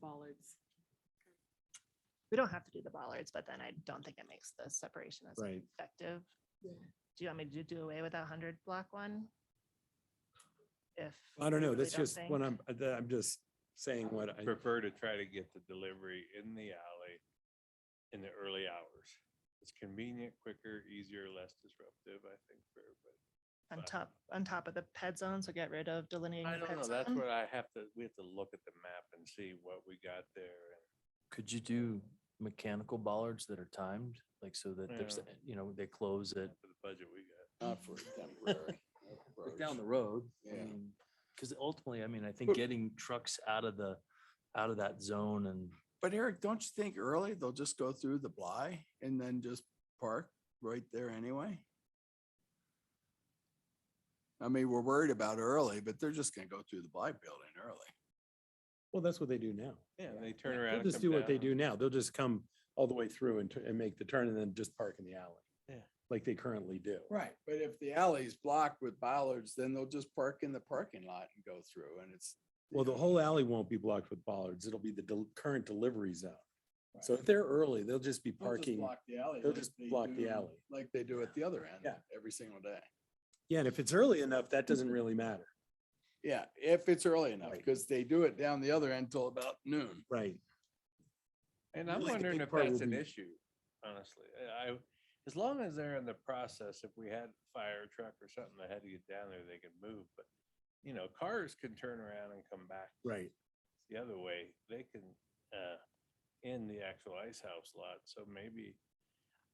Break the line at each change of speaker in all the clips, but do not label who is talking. bollards.
We don't have to do the bollards, but then I don't think it makes the separation as
Right.
effective.
Yeah.
Do you want me to do away with that hundred block one? If.
I don't
we
know.
really
That's
don't
just when
think-
I'm, uh, I'm just saying what I,
prefer to try to get the delivery in the alley in the early hours. It's convenient, quicker, easier, less disruptive, I think, for everybody.
On top, on top of the ped zone, so get rid of delineating. the
I don't
ped
know, that's
zone.
what I have to, we have to look at the map and see what we got there. and-
Could you do mechanical bollards that are timed, like so that there's,
Yeah.
you know, they close at
For the budget we got.
Not for a temporary.
like,
approach.
down the road?
Yeah.
Because ultimately, I mean, I think getting trucks out of the, out of that zone and
But Eric, don't you think early they'll just go through the Bly and then just park right there anyway? I mean, we're worried about early, but they're just gonna go through the Bly building early.
well, that's what they do now.
Yeah, and they turn around.
They'll
and
just
come
do what they
down.
do now. They'll just come all the way through and, tu- and make the turn and then just park in the alley.
Yeah.
Like they currently do.
Right. But if the alley's blocked with bollards, then they'll just park in the parking lot and go through and it's.
Well, the whole alley won't be blocked with bollards. It'll be the del- current delivery zone. So if they're early, they'll just be
They'll just
parking.
block the alley
they'll
like
just
they
block the
do-
alley.
Like they do at the other end.
Yeah.
Every single day.
Yeah, and if it's early enough, that doesn't really matter.
Yeah, if it's early enough,
Right.
because they do it down the other end till about noon.
Right.
And I'm
Really, the
wondering
big
if
part
that's
will
an
be-
issue, honestly. I, I- as long as they're in the process, if we had a fire truck or something that had to get down there, they could move, but you know, cars can turn around and come back
Right.
the other way. They can, uh, in the actual ice house lot, so maybe.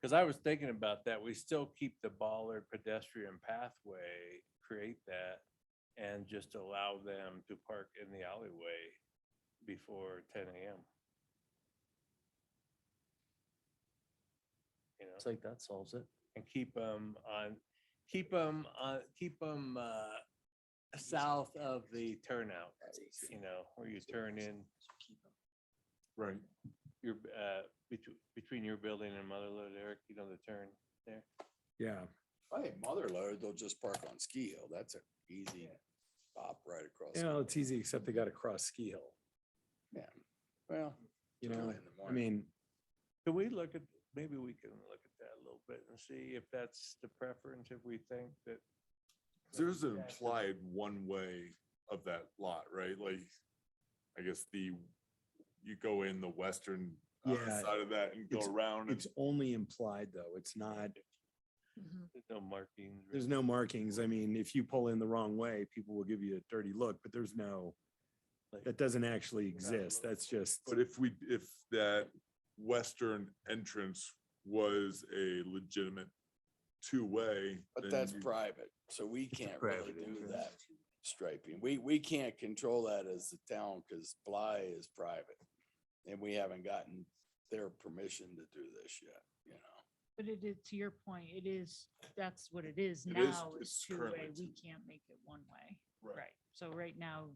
Cause I was thinking about that. We still keep the bollard pedestrian pathway, create that and just allow them to park in the alleyway before ten AM. You know?
it's like that solves it.
and keep them on, keep them, uh, keep them, uh, south of the turnout, you know, where you turn in
Right.
your, uh, between, between your building and Mother Lode, Eric, you know, the turn there.
Yeah.
I think Mother Lode, they'll just park on Ski Hill. That's an easy stop right across.
You know, it's easy, except they got to cross Ski Hill,
Yeah, well.
you
it's
know?
early in the
I
morning.
mean,
Can we look at, maybe we can look at that a little bit and see if that's the preference, if we think that.
There's an
Yeah.
implied one way of that lot, right? Like, I guess the, you go in the western uh,
Yeah,
side of that and go
it's-
around. and
it's only implied though. It's not,
Mhm.
There's no markings.
there's
really.
no markings. I mean, if you pull in the wrong way, people will give you a dirty look, but there's no,
Like-
that doesn't actually
You're not
exist.
allowed
That's
to.
just,
But if we, if that western entrance was a legitimate two-way.
But
then
that's
you-
private, so we can't really
private
do
entrance.
that striping. We, we can't control that as a town because Bly is private. And we haven't gotten their permission to do this yet, you know.
But it is, to your point, it is, that's what it is
It is-
now. It's
it's
two-way.
currently
We
two.
can't make it one way.
Right.
So right now,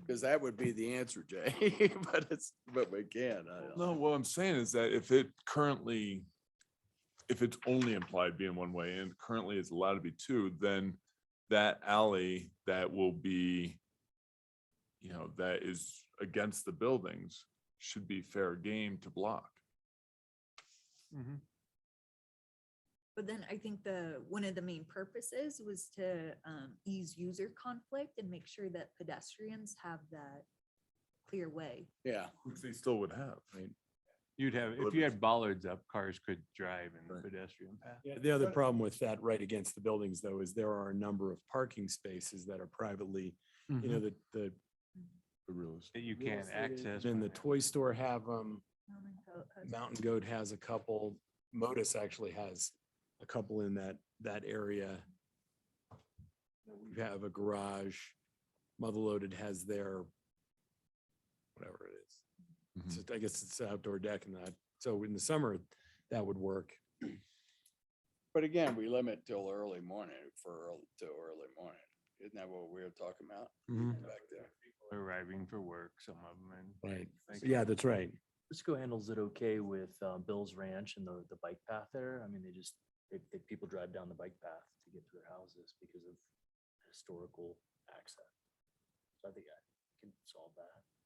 Because that would be the answer, Jay, but it's, but we can. I don't-
No, what I'm saying is that if it currently, if it's only implied being one way and currently it's allowed to be two, then that alley that will be, you know, that is against the buildings should be fair game to block.
But then I think the, one of the main purposes was to um, ease user conflict and make sure that pedestrians have that clear way.
Yeah.
Which they still would have, right?
You'd have, if you
Deliveries.
had bollards up, cars could drive in the
Right.
pedestrian path.
Yeah, the other problem with that right against the buildings though, is there are a number of parking spaces that are privately,
Mm-hmm.
you
Mm-hmm.
know, the, the,
The realist.
That you
real
can't
estate agent
access.
and
by
the
now.
toy store have them.
Mountain goat has-
Mountain Goat has a couple, Modus actually has a couple in that, that area. We have a garage, Mother Loaded has their, whatever it is.
Mm-hmm.
It's just- I guess it's outdoor deck and that, so in the summer, that would work.
But again, we limit till early morning for, earl- till early morning. Isn't that what we were talking about
Mm-hmm.
back there?
Arriving for work, some of them and.
Right.
Thank you.
Yeah, that's right.
Frisco handles it okay with uh, Bill's Ranch and the, the bike path there. I mean, they just, they, they, people drive down the bike path to get to their houses because of historical access. So I think I can solve that.